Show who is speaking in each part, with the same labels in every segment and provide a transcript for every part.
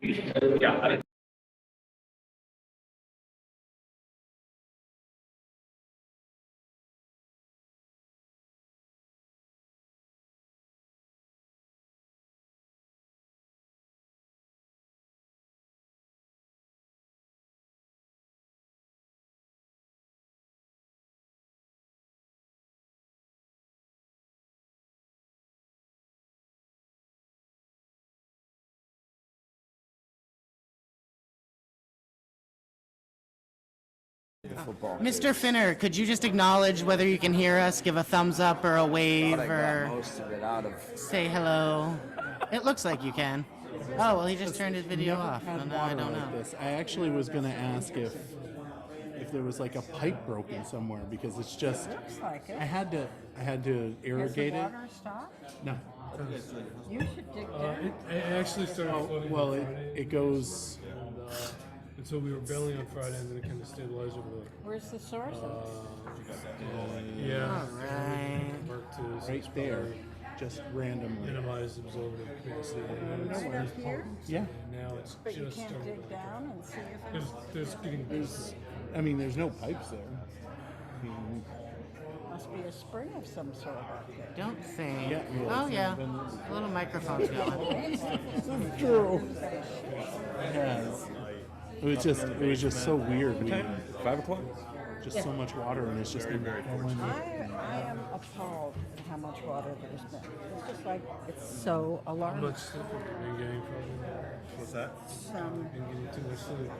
Speaker 1: Yeah, I mean,
Speaker 2: Mr. Finner, could you just acknowledge whether you can hear us, give a thumbs up or a wave
Speaker 3: Thought I got
Speaker 2: or
Speaker 3: most of it out of.
Speaker 2: say hello? It looks like you can. Oh, well, he just turned his video off.
Speaker 4: had
Speaker 2: So now I
Speaker 4: water
Speaker 2: don't
Speaker 4: like
Speaker 2: know.
Speaker 4: this. I actually was going to ask if if there was like a pipe broken somewhere because it's just
Speaker 5: Looks like it.
Speaker 4: I had to I had to
Speaker 5: Has the
Speaker 4: irrigate it.
Speaker 5: water stopped?
Speaker 4: No.
Speaker 5: You should dig
Speaker 6: Uh,
Speaker 5: down.
Speaker 7: Uh, It actually started flooding
Speaker 4: Oh, Well,
Speaker 7: on
Speaker 4: it,
Speaker 7: Friday,
Speaker 4: it goes
Speaker 7: and so we were bailing on Friday, and then it kind of stabilized over the uh,
Speaker 5: Where's the source of
Speaker 6: Uh,
Speaker 5: it?
Speaker 7: yeah
Speaker 2: Right.
Speaker 7: work to
Speaker 4: uh, right there just randomly.
Speaker 7: minimize absorptive capacity. And it's-
Speaker 5: Right up here?
Speaker 4: Yeah.
Speaker 7: Now it's
Speaker 5: But you
Speaker 7: just
Speaker 5: can't
Speaker 7: starting
Speaker 5: dig
Speaker 7: to.
Speaker 5: down and see if
Speaker 7: There's,
Speaker 5: it's,
Speaker 7: there's getting
Speaker 4: There's I mean there's no pipes there. Hmm.
Speaker 5: must be a spring of some sort up there.
Speaker 2: Don't say.
Speaker 4: Yeah, well,
Speaker 2: Oh,
Speaker 4: it's
Speaker 2: yeah.
Speaker 4: been-
Speaker 2: Little microphone's going.
Speaker 4: True. It was just it was just so weird. We,
Speaker 3: Five o'clock?
Speaker 4: just so much water and it's just
Speaker 5: I, I am appalled at how much water there's been. It's just like, it's so
Speaker 7: How
Speaker 5: alarming.
Speaker 7: much sleep have you been getting from?
Speaker 8: What's that?
Speaker 5: Um,
Speaker 7: Been getting too much sleep.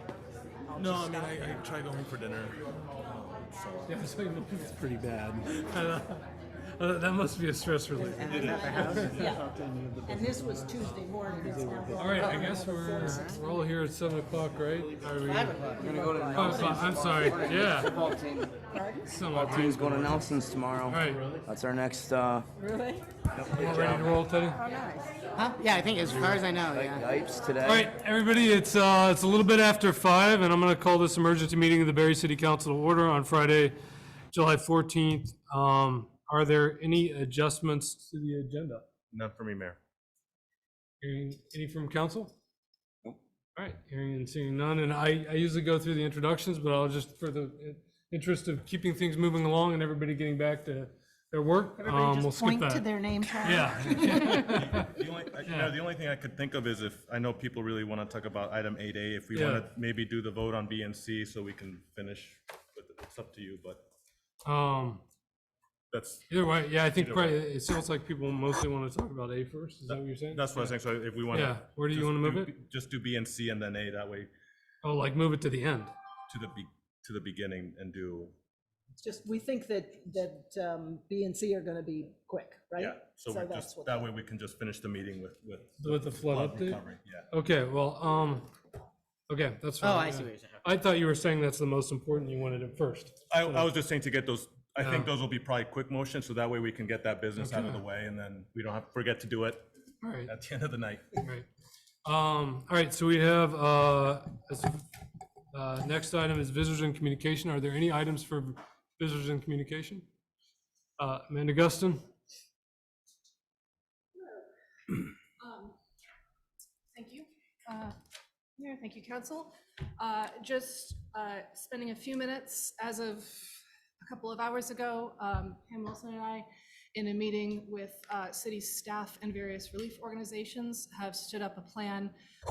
Speaker 8: No, I mean, I, I try going for dinner. So,
Speaker 7: Yeah, so you-
Speaker 4: pretty bad.
Speaker 7: I know. Uh, that must be a stress relief.
Speaker 6: Yeah. And this was Tuesday morning, it's now.
Speaker 7: All right, I guess we're we're all here at seven o'clock, right? Are we?
Speaker 3: We're gonna go to
Speaker 7: Oh, so- I'm sorry. Yeah.
Speaker 3: Football team.
Speaker 7: Some
Speaker 3: Our team's going to Nelson's tomorrow.
Speaker 7: All right.
Speaker 3: That's our next. Uh,
Speaker 5: really?
Speaker 7: We're ready to roll, Teddy.
Speaker 5: How nice.
Speaker 2: Huh? Yeah, I think as far as I know, yeah.
Speaker 3: Yipes today.
Speaker 7: All right, everybody, it's, uh, it's a little bit after five, and I'm gonna call this emergency meeting of the Barry City Council to order on Friday, July fourteenth. Um, are there any adjustments to the agenda?
Speaker 8: not for me, Mayor.
Speaker 7: Hearing, any from council? All right, hearing and seeing none, and I, I usually go through the introductions, but I'll just, for the uh, interest of keeping things moving along and everybody getting back to their work, um, we'll skip
Speaker 6: Point to
Speaker 7: that.
Speaker 6: their name tag.
Speaker 7: Yeah,
Speaker 8: The only, I- you know, the only thing I could think of is if, I know people really want to talk about item eight A, if we
Speaker 7: Yeah.
Speaker 8: want to maybe do the vote on B and C so we can finish, but it's up to you, but
Speaker 7: um,
Speaker 8: that's,
Speaker 7: either way, yeah, I think probably, it sounds like people mostly want to talk about A first, is that what you're saying?
Speaker 8: that's what I was saying, so if we want to.
Speaker 7: Yeah, where do you wanna move
Speaker 8: Just do B and C and then A, that way
Speaker 7: Oh, like move it to the end.
Speaker 8: to the, be- to the beginning and do,
Speaker 6: It's Just, we think that, that um, B and C are gonna be quick, right?
Speaker 8: yeah, so we
Speaker 6: that's
Speaker 8: just,
Speaker 6: what-
Speaker 8: that way we can just finish the meeting with, with.
Speaker 7: With the flood update?
Speaker 8: recovery, Yeah.
Speaker 7: Okay, well, um, okay, that's fine.
Speaker 2: Oh, I see what you're saying.
Speaker 7: I thought you were saying that's the most important, you wanted it first.
Speaker 8: I, I was just saying to get those, I
Speaker 7: Yeah.
Speaker 8: think those will be probably quick motions, so that way we can get that business out of the way, and then we don't have, forget to do it
Speaker 7: All right,
Speaker 8: at the end of the night.
Speaker 7: all right. Um, all right, so we have, uh, this- uh, next item is visitors and communication. Are there any items for visitors and communication? Uh, Amanda Guston?
Speaker 9: Um, Thank you, uh, Mayor, thank you, council. Uh, Just uh, spending a few minutes, as of a couple of hours ago, um, Pam Wilson and I, in a meeting with uh, city staff and various relief organizations, have stood up a plan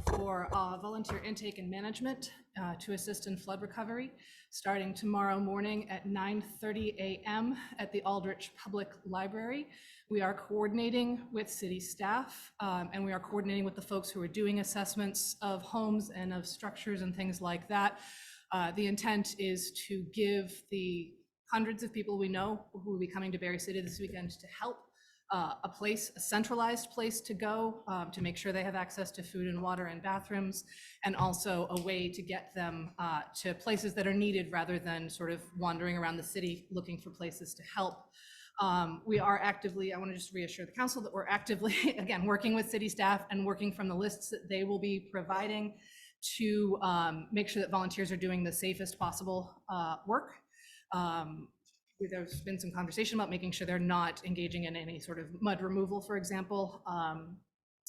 Speaker 9: for uh, volunteer intake and management uh, to assist in flood recovery, starting tomorrow morning at 9:30 a.m. at the Aldrich Public Library. We are coordinating with city staff, um, and we are coordinating with the folks who are doing assessments of homes and of structures and things like that. Uh, The intent is to give the hundreds of people we know who will be coming to Berry City this weekend to help uh, a place, a centralized place to go, um, to make sure they have access to food and water and bathrooms, and also a way to get them uh, to places that are needed rather than sort of wandering around the city looking for places to help. Um, We are actively, I want to just reassure the council that we're actively, again, working with city staff and working from the lists that they will be providing to um, make sure that volunteers are doing the safest possible uh, work. Um, we- There's been some conversation about making sure they're not engaging in any sort of mud removal, for example. Um,